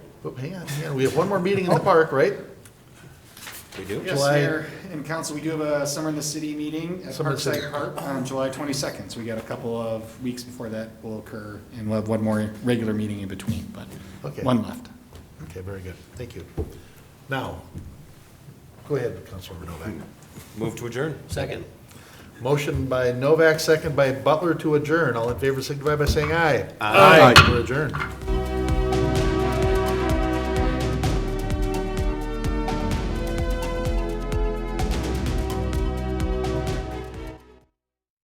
But hang on, hang on, we have one more meeting in the park, right? We do? Yeah. Yes, July- Mayor and council, we do have a Summer in the City meeting at Summer in the City. Parkside Park on July 22nd. So we got a couple of weeks before that will occur, and we'll have one more regular meeting in between, Okay. but one left. Okay, very good, thank you. Now, go ahead, Councilmember Novak. Move to adjourn. Second. Motion by Novak, second by Butler to adjourn. All in favor signify by saying aye. Aye. We're adjourned.